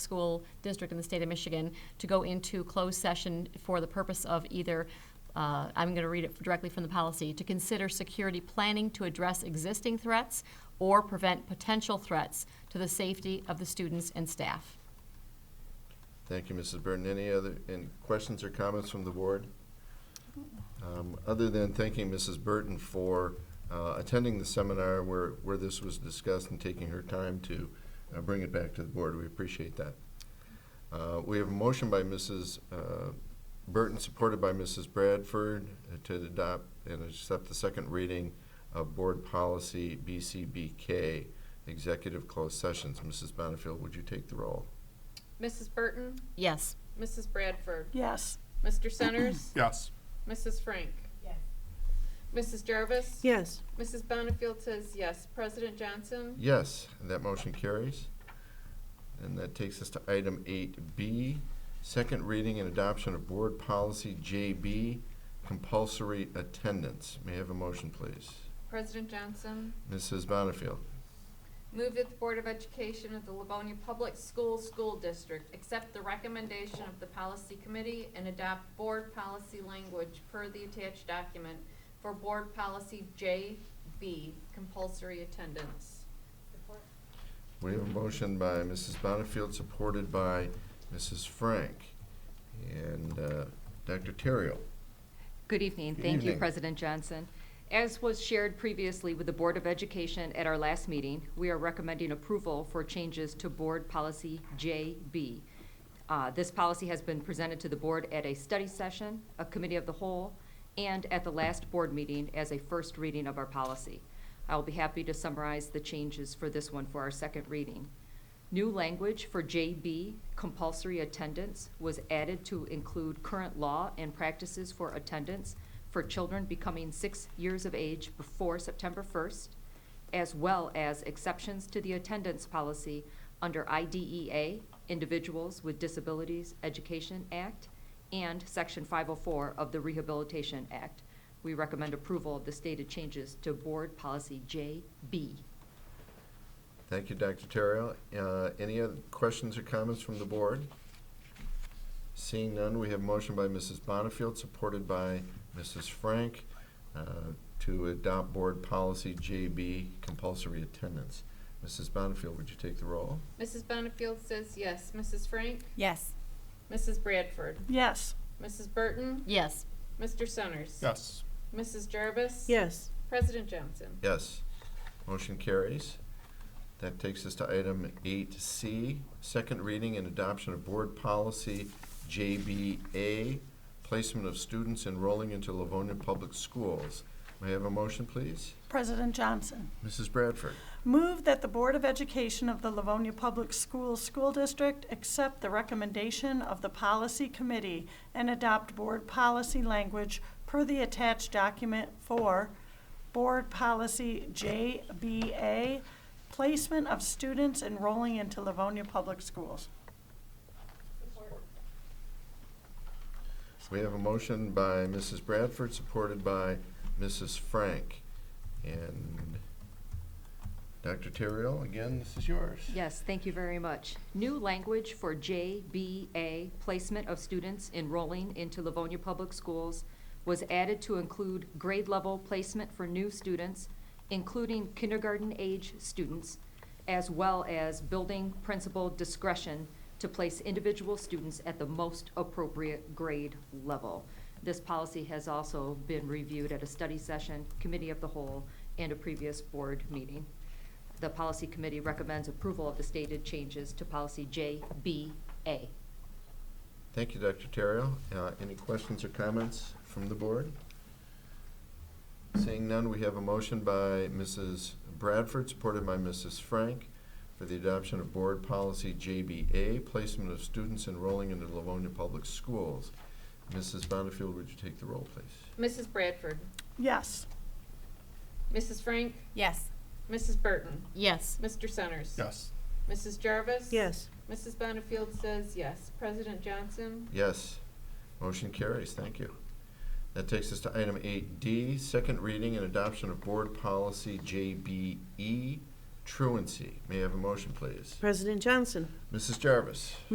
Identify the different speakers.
Speaker 1: school district in the state of Michigan to go into closed session for the purpose of either, uh, I'm going to read it directly from the policy, to consider security planning to address existing threats or prevent potential threats to the safety of the students and staff.
Speaker 2: Thank you, Mrs. Burton. Any other, any questions or comments from the board? Um, Other than thanking Mrs. Burton for uh, attending the seminar where, where this was discussed and taking her time to uh, bring it back to the board, we appreciate that. Uh, We have a motion by Mrs. uh, Burton, supported by Mrs. Bradford, uh, to adopt and accept the second reading of Board Policy BCBK, Executive Closed Sessions. Mrs. Bonnefield, would you take the roll?
Speaker 3: Mrs. Burton,
Speaker 1: Yes.
Speaker 3: Mrs. Bradford,
Speaker 4: Yes.
Speaker 3: Mr. Centers,
Speaker 5: Yes.
Speaker 3: Mrs. Frank. Mrs. Jarvis.
Speaker 4: Yes.
Speaker 3: Mrs. Bonnefield says yes. President Johnson,
Speaker 2: Yes, and that motion carries. And that takes us to item eight B, second reading and adoption of board policy JB, compulsory attendance. May I have a motion, please?
Speaker 3: President Johnson,
Speaker 2: Mrs. Bonnefield,
Speaker 3: move that the Board of Education of the Livonia Public Schools School District accept the recommendation of the Policy Committee and adopt board policy language per the attached document for Board Policy JB, compulsory attendance.
Speaker 2: we have a motion by Mrs. Bonnefield, supported by Mrs. Frank and uh, Dr. Terrell.
Speaker 6: Good evening.
Speaker 2: Good
Speaker 6: Thank you,
Speaker 2: evening.
Speaker 6: President Johnson. As was shared previously with the Board of Education at our last meeting, we are recommending approval for changes to Board Policy JB. Uh, This policy has been presented to the Board at a study session, a committee of the whole, and at the last Board meeting as a first reading of our policy. I will be happy to summarize the changes for this one for our second reading. New language for JB, compulsory attendance, was added to include current law and practices for attendance for children becoming six years of age before September 1st, as well as exceptions to the attendance policy under IDEA, Individuals with Disabilities Education Act, and Section 504 of the Rehabilitation Act. We recommend approval of the stated changes to Board Policy JB.
Speaker 2: Thank you, Dr. Terrell. Uh, Any other questions or comments from the board? Seeing none, we have motion by Mrs. Bonnefield, supported by Mrs. Frank, uh, to adopt board policy JB, compulsory attendance. Mrs. Bonnefield, would you take the roll?
Speaker 3: Mrs. Bonnefield says yes. Mrs. Frank,
Speaker 4: Yes.
Speaker 3: Mrs. Bradford,
Speaker 4: Yes.
Speaker 3: Mrs. Burton,
Speaker 1: Yes.
Speaker 3: Mr. Centers.
Speaker 5: Yes.
Speaker 3: Mrs. Jarvis?
Speaker 4: Yes.
Speaker 3: President Johnson?
Speaker 2: Yes. Motion carries. That takes us to item eight C, second reading and adoption of board policy JBA, placement of students enrolling into Livonia Public Schools. May I have a motion, please?
Speaker 4: President Johnson,
Speaker 2: Mrs. Bradford.
Speaker 4: move that the Board of Education of the Livonia Public Schools School District accept the recommendation of the Policy Committee and adopt board policy language per the attached document for Board Policy JBA, placement of students enrolling into Livonia Public Schools.
Speaker 2: We have a motion by Mrs. Bradford, supported by Mrs. Frank. And Dr. Terrell, again, this is yours.
Speaker 6: Yes, thank you very much. New language for JBA, placement of students enrolling into Livonia Public Schools, was added to include grade level placement for new students, including kindergarten age students, as well as building principal discretion to place individual students at the most appropriate grade level. This policy has also been reviewed at a study session, committee of the whole, and a previous board meeting. The policy committee recommends approval of the stated changes to policy JBA.
Speaker 2: Thank you, Dr. Terrio. Uh, Any questions or comments from the board? Seeing none, we have a motion by Mrs. Bradford, supported by Mrs. Frank, for the adoption of Board Policy JBA, placement of students enrolling into Livonia Public Schools. Mrs. Bonnefield, would you take the roll, please?
Speaker 3: Mrs. Bradford?
Speaker 4: Yes.
Speaker 3: Mrs. Frank?
Speaker 7: Yes.
Speaker 3: Mrs. Burton?
Speaker 1: Yes.
Speaker 3: Mr. Centers?
Speaker 5: Yes.
Speaker 3: Mrs. Jarvis?
Speaker 4: Yes.
Speaker 3: Mrs. Bonnefield says yes. President Johnson?
Speaker 2: Yes. Motion carries. Thank you. That takes us to item eight D, second reading and adoption of Board Policy JBE,
Speaker 5: truancy. May I have a motion, please?
Speaker 2: President Johnson.
Speaker 5: Mrs. Jarvis?